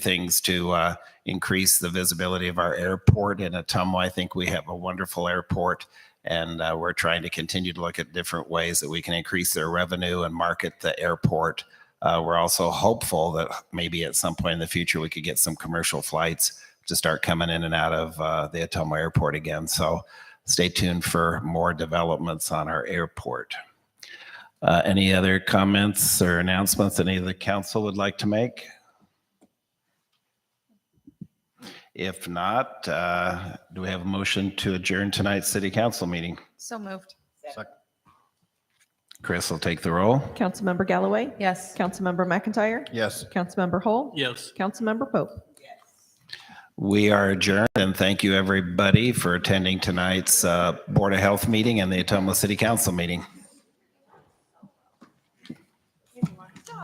things to uh, increase the visibility of our airport in Atumwa. I think we have a wonderful airport, and uh, we're trying to continue to look at different ways that we can increase their revenue and market the airport. Uh, we're also hopeful that maybe at some point in the future we could get some commercial flights to start coming in and out of uh, the Atumwa airport again. So stay tuned for more developments on our airport. Uh, any other comments or announcements any of the council would like to make? If not, uh, do we have a motion to adjourn tonight's city council meeting? So moved. Chris will take the roll. Councilmember Galloway? Yes. Councilmember McIntyre? Yes. Councilmember Hull? Yes. Councilmember Pope? We are adjourned and thank you everybody for attending tonight's uh, Board of Health meeting and the Atomo City Council meeting.